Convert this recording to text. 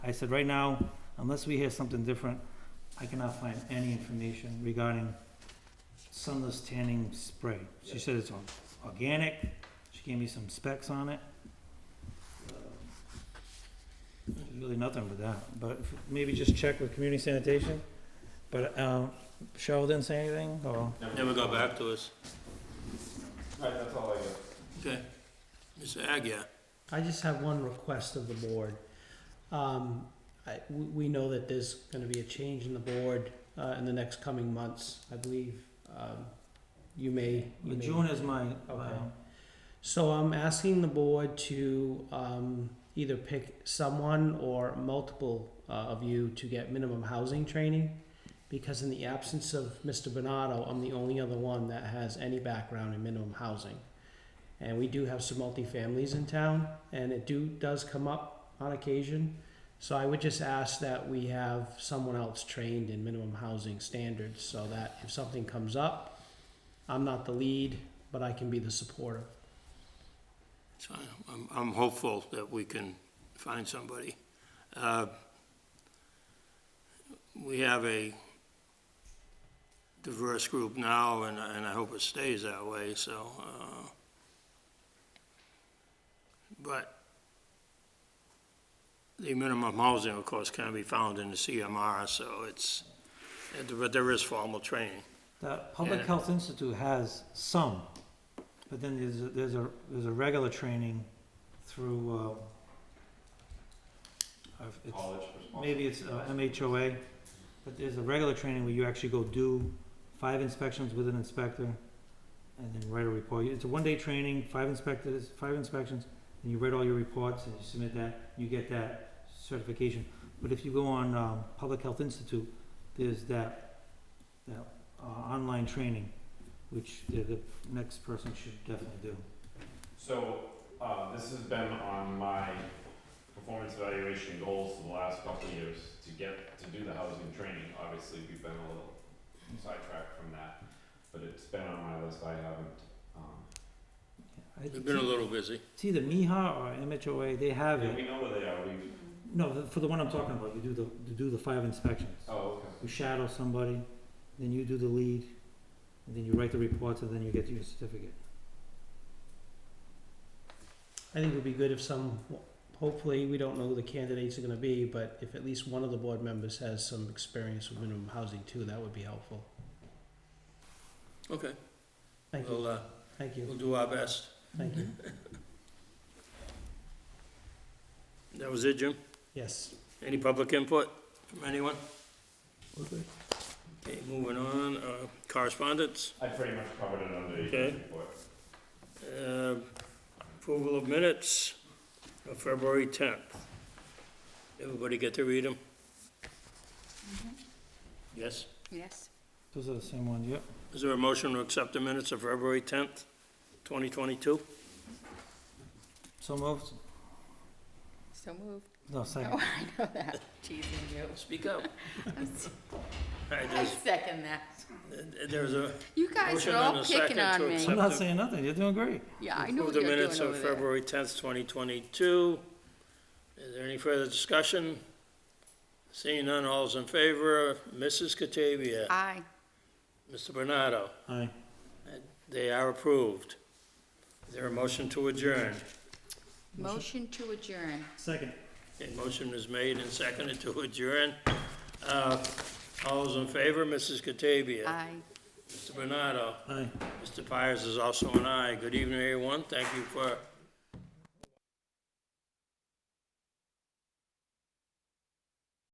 I said, right now, unless we hear something different, I cannot find any information regarding sunless tanning spray. She said it's or- organic, she gave me some specs on it. Um, There's really nothing but that, but if- maybe just check with community sanitation, but, um, Cheryl didn't say anything, or? Never got back to us. Alright, that's all I got. Okay. Mr. Agia, I just have one request of the board. Um, I, we, we know that there's gonna be a change in the board, uh, in the next coming months, I believe. Um, you may, you But may. June is my, Okay. um, So I'm asking the board to, um, either pick someone or multiple, uh, of you to get minimum housing training. Because in the absence of Mr. Bernardo, I'm the only other one that has any background in minimum housing. And we do have some multifamilies in town, and it do, does come up on occasion. So I would just ask that we have someone else trained in minimum housing standards, so that if something comes up, I'm not the lead, but I can be the supportive. so I'm, I'm hopeful that we can find somebody. Uh, We have a diverse group now, and, and I hope it stays that way, so, uh, but the minimum housing, of course, can be found in the CMR, so it's, but there is formal training. The Public Yeah. Health Institute has some, but then there's, a- there's a, there's a regular training through, uh, I've- it's- College responsible. maybe it's uh, MHOA, but there's a regular training where you actually go do five inspections with an inspector and then write a report. It's a one-day training, five inspectors, five inspections, and you write all your reports and you submit that, you get that certification. But if you go on, um, Public Health Institute, there's that, that, uh, online training, which the, the next person should definitely do. So, uh, this has been on my performance evaluation goals for the last couple of years, to get, to do the housing training, obviously, we've been a little sidetracked from that, but it's been on my list, I haven't, um, I- We've been a little busy. It's either MIHA or MHOA, they have yeah, it. we know where they are, we, No, the- for the one I'm talking about, you do the, you do the five inspections. oh, okay. You shadow somebody, then you do the lead, and then you write the reports, and then you get your certificate. I think it would be good if some, hopefully, we don't know who the candidates are gonna be, but if at least one of the board members has some experience with minimum housing too, that would be helpful. Okay. Thank you, We'll, uh, thank we'll you, do our best. thank you. That was it, Jim? Yes. Any public input from anyone? Okay, moving on, uh, correspondence, I pretty much covered it under Okay. the report. uh, approval of minutes of February tenth. Everybody get to read them? Mm-hmm. Yes? Yes. Those are the same ones, yep. Is there a motion to accept the minutes of February tenth, twenty twenty-two? So moved? So moved. No, Oh, second. I know that. Cheesing you. Speak up. All right, I there's, second that. there's a You guys Motion are and all a picking second to on me. I'm accept. not saying nothing, you're doing great. Yeah, I know approve what the you're doing minutes over of there. February tenth, twenty twenty-two. Is there any further discussion? Seeing none, all's in favor, Mrs. Catavia. Aye. Mr. Bernardo, Aye. they are approved. Is there a motion to adjourn? Motion to adjourn. Second. A motion is made and seconded to adjourn. Uh, All those in favor, Mrs. Catavia? Aye. Mr. Bernardo? Aye. Mr. Pires is also an aye. Good evening, everyone. Thank you for